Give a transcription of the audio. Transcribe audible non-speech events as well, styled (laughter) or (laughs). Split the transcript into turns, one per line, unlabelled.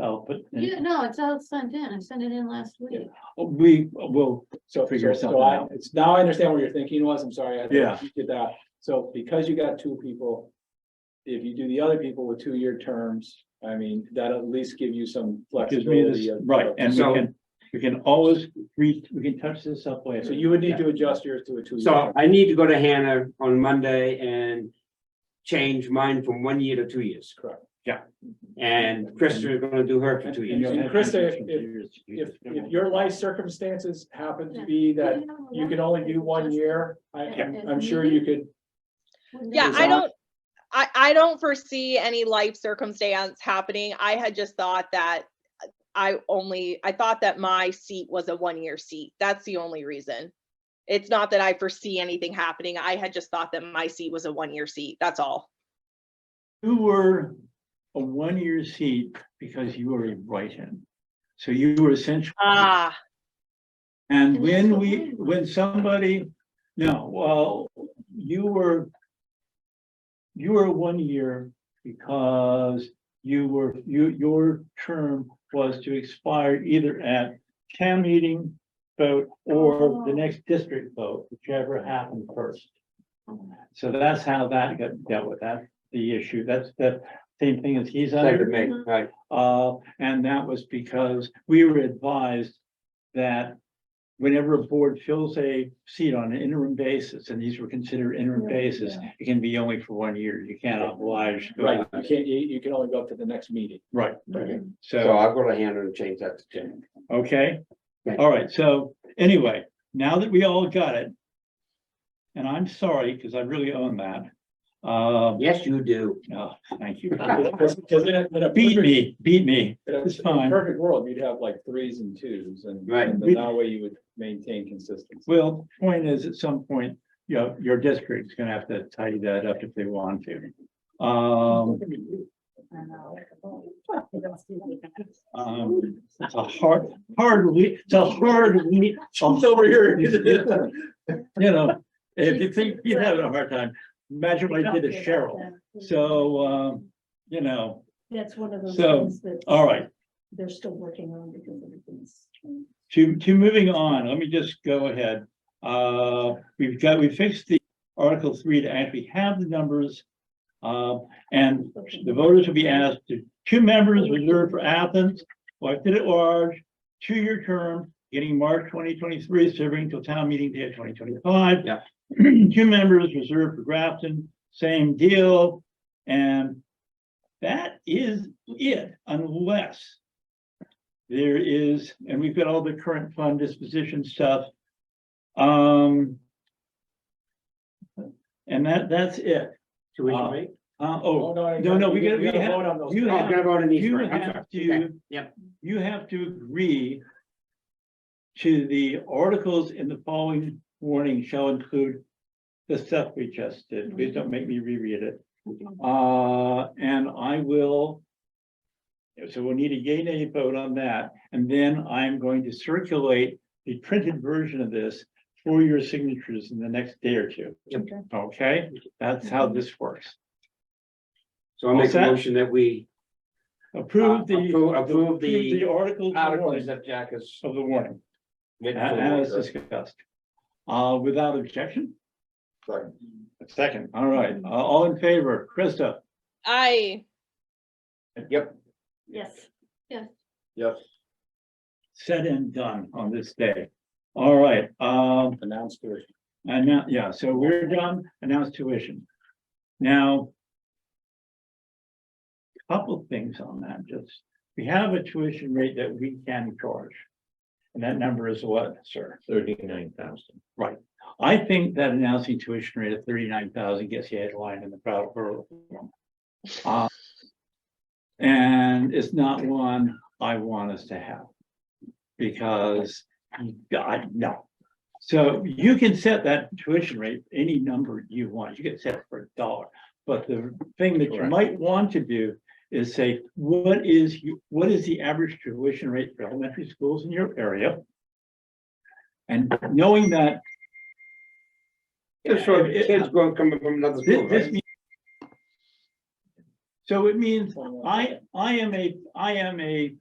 I'll put,
Yeah, no, it's all sent in. I sent it in last week.
we will,
So.
Figure
so- so
something
I-
out.
It's now I understand what your thinking was. I'm sorry. I
Yeah.
Did that. So because you got two people. If you do the other people with two-year terms, I mean, that at least give you some
gives me
flexibility.
this,
of-
right, and we
So-
can, we can always reach, we can touch this up later.
So you would need to adjust yours to a two-year.
So
term.
I need to go to Hannah on Monday and change mine from one year to two years.
Correct.
Yeah.
And Krista is gonna do her for two
And
years.
you'll- Krista, If, if your life circumstances happen to be that you can only do one year, I, I'm, I'm sure you could.
Yeah,
Is
I
that-
don't, I, I don't foresee any life circumstance happening. I had just thought that I only, I thought that my seat was a one-year seat. That's the only reason. It's not that I foresee anything happening. I had just thought that my seat was a one-year seat. That's all.
You were a one-year seat because you were a Brighton. So you were essentially,
Ah,
and
And that's
when
what
we,
mine was.
when somebody, no, well, you were. You were one year because you were, you, your term was to expire either at town meeting vote or the
Oh.
next district vote, whichever happened first. So that's how that got dealt with, that's the issue, that's the same thing as he's
Second
under,
May, right.
uh, and that was because we were advised that whenever a board fills a seat on an interim basis, and these were considered interim basis, it can be only for one year, you can't oblige.
Right, you can't, you, you can only go up to the next meeting.
Right,
Okay.
So
so,
I'll go to Hannah and change that to ten.
okay,
Right.
all right, so, anyway, now that we all got it, and I'm sorry, because I really own that, um,
Yes, you do.
oh, thank you.
Because because in a, in a.
Beat
perfect-
me, beat me.
in a-
It's
in a
fine.
Perfect world, you'd have like threes and twos and.
Right.
And then that way you would maintain consistency.
Well, point is, at some point, you know, your district's gonna have to tidy that up if they want to. Um, um, it's a hard, hard, we, it's a hard, we.
over here.
(laughs) You know, if you think you're having a hard time, imagine what I did to Cheryl. So, um, you know,
That's one of those
So,
things that.
all right.
They're still working on because everything's.
to, to moving on, let me just go ahead. Uh, we've got, we fixed the Article three to actually have the numbers. Uh, and the voters will be asked to, two members reserved for Athens, elected at large, two-year term, getting March twenty twenty-three, serving till town meeting day of twenty twenty-five.
Yeah.
(clears throat) Two members reserved for Grafton, same deal, and that is it, unless there is, and we've got all the current fund disposition stuff. Um. And that, that's it.
Tuition rate?
Uh,
Oh,
oh,
no,
no, no, we
gotta-
gotta- we
gotta
have-
vote on those.
you
Oh, I'm gonna vote on these
you
first. I'm sorry.
have to.
Yep.
You have to agree. To the articles in the following warning shall include. The stuff we just
Mm-hmm.
did. Please don't make me reread it. Uh, and I will. So we'll need a yay nay vote on that, and then I'm going to circulate the printed version of this for your signatures in the next day or two.
Yep. Mm-hmm.
Okay, that's how this works.
So I'll make
What's
a
that?
motion that we
Approve the.
Uh, Approve- approve
approve
the
The articles of the
articles
warning-
that Jack is.
of the warning. As discussed. Uh, without objection? Second. All right, uh, all in favor, Krista?
I,
Yep.
Yes.
Yep,
Said and done on this day. All right, um,
announced it.
and now, yeah, so we're done, announced tuition. Now. Couple things on that, just, we have a tuition rate that we can charge. And that number is what, sir?
Thirty-nine thousand.
I think that announcing tuition rate of thirty-nine thousand gets you headlined in the crowd for. Uh, And it's not one I want us to have. Because, God, no. So you can set that tuition rate any number you want. You can set it for a dollar. But the thing that you
Correct.
might want to do is say, what is, you- what is the average tuition rate for elementary schools in your area? And knowing that
Just for
It-
kids going, coming from another
Thi-
school,
This,
right?
means- So it means
Twenty-one.
I, I am a, I am a